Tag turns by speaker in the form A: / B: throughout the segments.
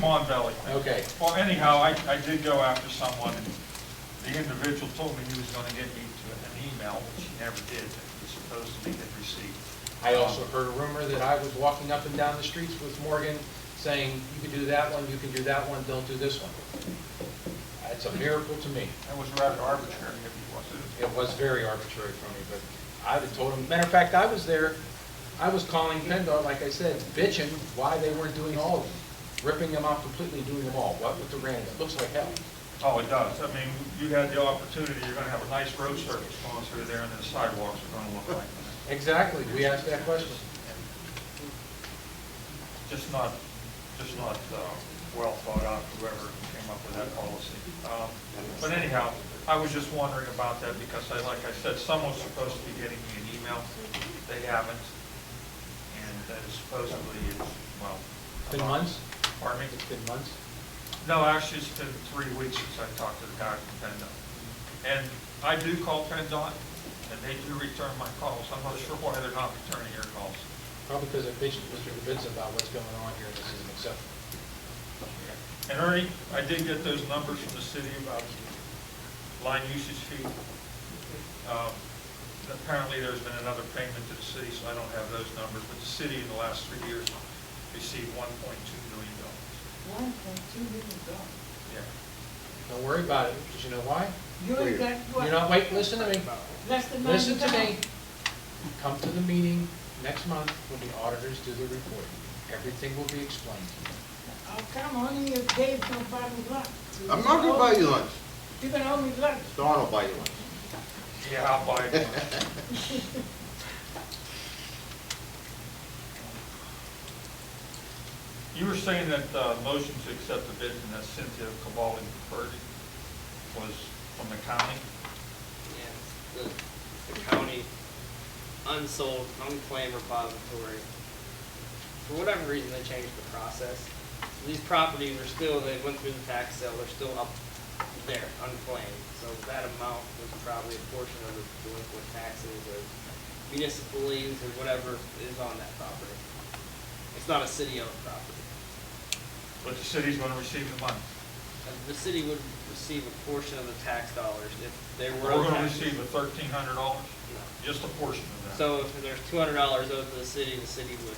A: Mon Valley thing.
B: Okay.
A: Well, anyhow, I, I did go after someone, and the individual told me he was gonna get me to an email, which he never did, that he supposedly had received. Um,
B: I also heard a rumor that I was walking up and down the streets with Morgan saying, you can do that one, you can do that one, don't do this one. It's a miracle to me.
A: That was rather arbitrary, if he wasn't.
B: It was very arbitrary for me, but I would have told him, matter of fact, I was there, I was calling PennDOT, like I said, bitching why they weren't doing all of them, ripping them off completely, doing them all, what with the random, it looks like hell.
A: Oh, it does. I mean, you had the opportunity, you're gonna have a nice road surface going through there, and the sidewalks are gonna look like, that.
B: Exactly, we asked that question.
A: just not, just not, uh, well thought out, whoever came up with that policy. Um, But anyhow, I was just wondering about that, because I, like I said, someone's supposed to be getting me an email. They haven't, and that is supposedly, it's, well.
B: Been months?
A: Pardon me?
B: It's been months.
A: No, actually, it's been three weeks since I talked to the guy from PennDOT. And I do call PennDOT, and they do return my calls. I'm not sure why they're not returning your calls.
B: Probably because I bitched Mr. Kibitz about what's going on here, and this isn't acceptable.
A: And Ernie, I did get those numbers from the city about line usage fee. Um, Apparently, there's been another payment to the city, so I don't have those numbers, but the city in the last three years received one point two million dollars.
C: One point two million dollars.
A: Yeah.
B: Don't worry about it, because you know why?
C: You ain't got,
B: You're
C: what,
B: not, wait, listen to me,
C: less than ninety
B: listen
C: thousand?
B: to me. Come to the meeting next month when the auditors do the report. Everything will be explained.
C: Oh, come on, you Dave's gonna buy me lunch.
D: I'm not gonna buy you lunch.
C: You're gonna owe me lunch.
D: Don will buy you lunch.
A: Yeah, I'll buy it. You were saying that uh, motion to accept the bid from that Cynthia Cavalli Purdy was from the county?
E: and the, the county unsold, unclaimed repository. For whatever reason, they changed the process. These properties are still, they went through the tax sale, they're still up there, unclaimed. So that amount was probably a portion of the delinquent taxes or municipal liens or whatever is on that property. It's not a city-owned property.
A: But the city's going to receive the money.
E: And The city would receive a portion of the tax dollars if they were.
A: We're going to
E: taxed.
A: receive a thirteen hundred dollars,
E: No.
A: just a portion of that.
E: So if there's two hundred dollars owed to the city, the city would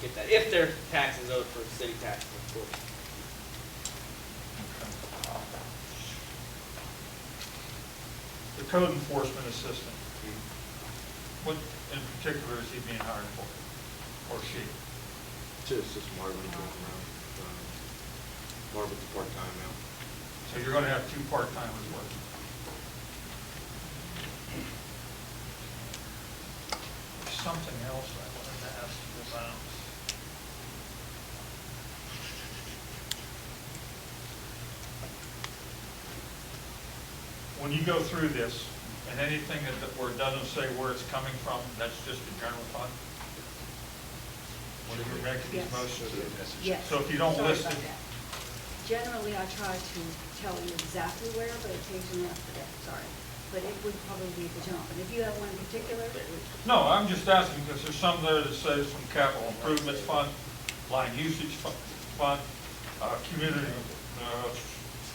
E: get that, if their taxes owed for city taxes, of course.
A: The code enforcement assistant, what in particular is he being hired for, or she?
D: Just, just Marvin going around. uh, Marvin's part-time now.
A: So you're going to have two part-timers working. There's Something else I wanted to ask you about. When you go through this, and anything that, that- where it doesn't say where it's coming from, that's just the general fund? When you're making these
F: Yes.
A: motions?
F: Yes.
A: So if you don't
F: Sorry
A: list
F: about
A: it-
F: that. Generally, I try to tell you exactly where, but occasionally I forget, sorry. But it would probably be the jump. And if you have one in particular, oh, it would
A: No, I'm just asking because there's some there that says from capital improvement fund, line usage fu- fund, uh, community, uh,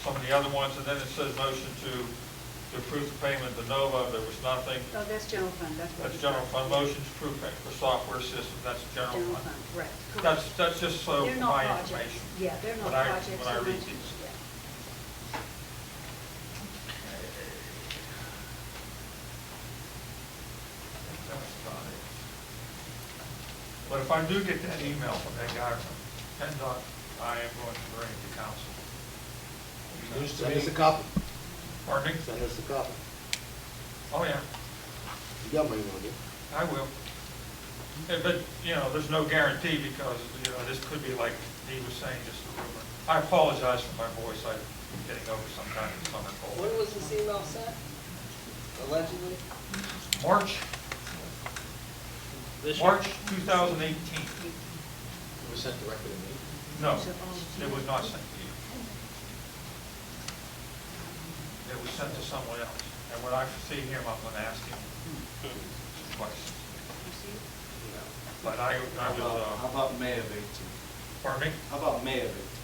A: some of the other ones, and then it says motion to, to approve the payment to Nova, there was nothing.
F: oh, that's general fund, that's what.
A: That's
F: we-
A: general fund, motion to approve payment for software system, that's general
F: General
A: fund.
F: fund, correct. correct.
A: That's, that's just so
F: They're not
A: my
F: projects.
A: information.
F: Yeah, they're not
A: when I-
F: projects.
A: When I
F: so
A: read
F: much-
A: these.
F: yeah.
A: That's about it. But if I do get that email from that guy from PennDOT, I am going to bring it to council.
B: News to
D: Send us a
B: me,
D: copy.
A: Pardon me?
D: Send us a copy.
A: Oh, yeah,
D: You got my email, do
A: I will. Yeah, But, you know, there's no guarantee because, you know, this could be like he was saying, just a rumor. I apologize for my voice, I'm getting over some kind of summer cold.
E: When was this email sent? Allegedly?
A: March,
E: This year?
A: March 2018.
B: it was sent directly to me.
A: No, it was not sent to you. It was sent to someone else. And when I see him, I'm going to ask him twice.
F: You see?
E: No.
A: But I, I
G: How
A: was,
G: about- How
A: uh,
G: about May of 18?
A: pardon me?
G: How about May of 18?